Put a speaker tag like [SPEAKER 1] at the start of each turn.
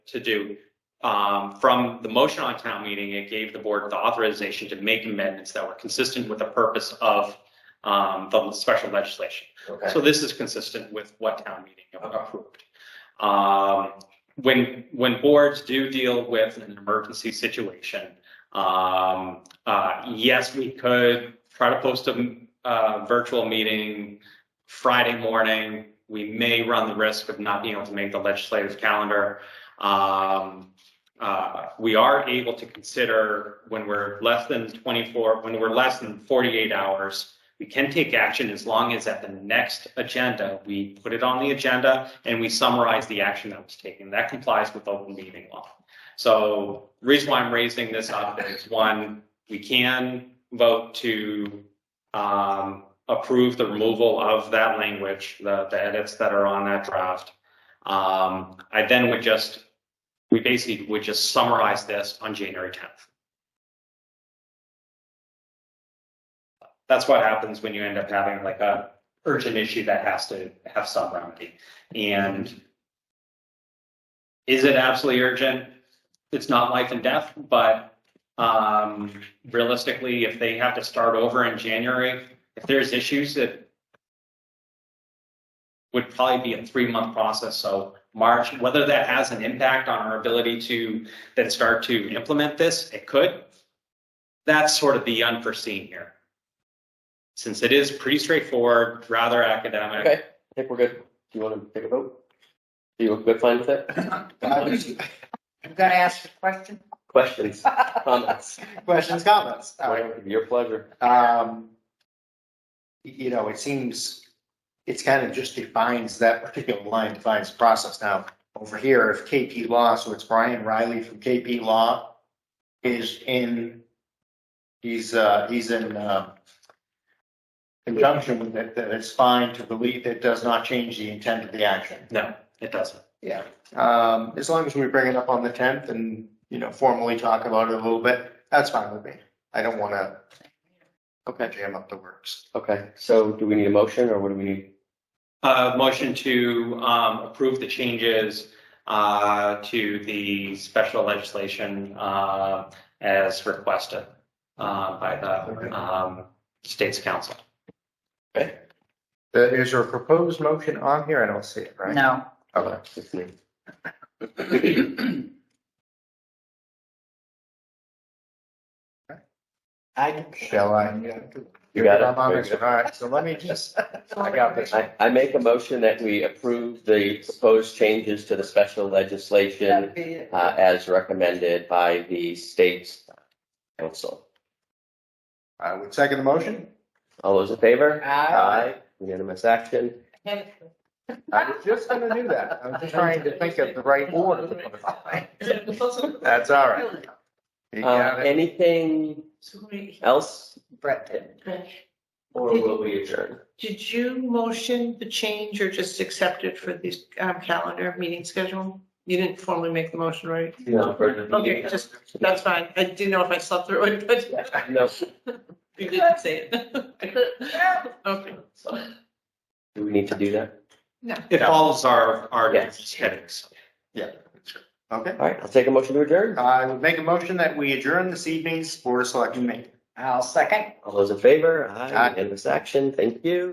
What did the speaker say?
[SPEAKER 1] to do. Um, from the motion on town meeting, it gave the board the authorization to make amendments that were consistent with the purpose of um, the special legislation.
[SPEAKER 2] Okay.
[SPEAKER 1] So this is consistent with what town meeting
[SPEAKER 2] Okay.
[SPEAKER 1] approved. Um, when, when boards do deal with an emergency situation, um, uh, yes, we could try to post a, uh, virtual meeting Friday morning. We may run the risk of not being able to make the legislative calendar. Um, uh, we are able to consider when we're less than twenty-four, when we're less than forty-eight hours, we can take action as long as at the next agenda, we put it on the agenda and we summarize the action that was taken. That complies with open meeting law. So the reason why I'm raising this up is one, we can vote to um, approve the removal of that language, the, the edits that are on that draft. Um, I then would just, we basically would just summarize this on January 10th. that's what happens when you end up having like a urgent issue that has to have some remedy. And is it absolutely urgent? It's not life and death, but um, realistically, if they have to start over in January, if there's issues, it would probably be a three month process. So March, whether that has an impact on our ability to then start to implement this, it could. That's sort of the unforeseen here since it is pretty straightforward, rather academic.
[SPEAKER 2] Okay, I think we're good. Do you want to take a vote? Do you look good, fine with it?
[SPEAKER 3] I'm gonna ask a question.
[SPEAKER 2] Questions, comments?
[SPEAKER 3] Questions, comments. All right.
[SPEAKER 2] Whatever, Your pleasure.
[SPEAKER 3] Um, y- you know, it seems, it's kind of just defines that particular line defines the process. Now, over here, if KP Law, so it's Brian Riley from KP Law is in, he's, uh, he's in, uh, conjunction with it, that it's fine to believe it does not change the intent of the action.
[SPEAKER 1] No, it doesn't.
[SPEAKER 3] Yeah, um, as long as we bring it up on the tenth and, you know, formally talk about it a little bit, that's fine with me. I don't wanna
[SPEAKER 2] Okay,
[SPEAKER 3] jam up the works.
[SPEAKER 2] okay. So do we need a motion or what do we need?
[SPEAKER 1] Uh, motion to um, approve the changes uh, to the special legislation uh, as requested uh, by the um, state's council.
[SPEAKER 3] Uh, Is there a proposed motion on here? I don't see it, right?
[SPEAKER 4] No,
[SPEAKER 3] Okay.
[SPEAKER 2] It's me.
[SPEAKER 3] I. Shall I?
[SPEAKER 2] You got it.
[SPEAKER 3] I'm on
[SPEAKER 2] Very
[SPEAKER 3] this
[SPEAKER 2] good.
[SPEAKER 3] one. All right, so let me just, I got this.
[SPEAKER 2] I, I make a motion that we approve the proposed changes to the special legislation
[SPEAKER 4] that'd be it.
[SPEAKER 2] uh, as recommended by the state's council.
[SPEAKER 3] I would second the motion.
[SPEAKER 2] All those in favor?
[SPEAKER 3] Aye.
[SPEAKER 2] Unanimous action.
[SPEAKER 3] I was just gonna do that. I was trying to think of the right order. to put it on. That's all right. You
[SPEAKER 2] Uh,
[SPEAKER 3] got it.
[SPEAKER 2] anything else?
[SPEAKER 4] Brett,
[SPEAKER 2] Or will we adjourn?
[SPEAKER 4] did you motion the change or just accept it for the um, calendar meeting schedule? You didn't formally make the motion, right?
[SPEAKER 2] No.
[SPEAKER 4] Okay, just, that's fine. I didn't know if I slept through it, but
[SPEAKER 2] No.
[SPEAKER 4] you didn't say it. Okay.
[SPEAKER 2] Do we need to do that?
[SPEAKER 1] It follows our, our
[SPEAKER 2] Yes.
[SPEAKER 1] headings.
[SPEAKER 3] Okay,
[SPEAKER 2] All right, I'll take a motion to adjourn.
[SPEAKER 3] I would make a motion that we adjourn this evening's Board of Selectmen meeting.
[SPEAKER 4] I'll second.
[SPEAKER 2] All those in favor?
[SPEAKER 3] Aye.
[SPEAKER 2] Aye. Unanimous action. Thank you.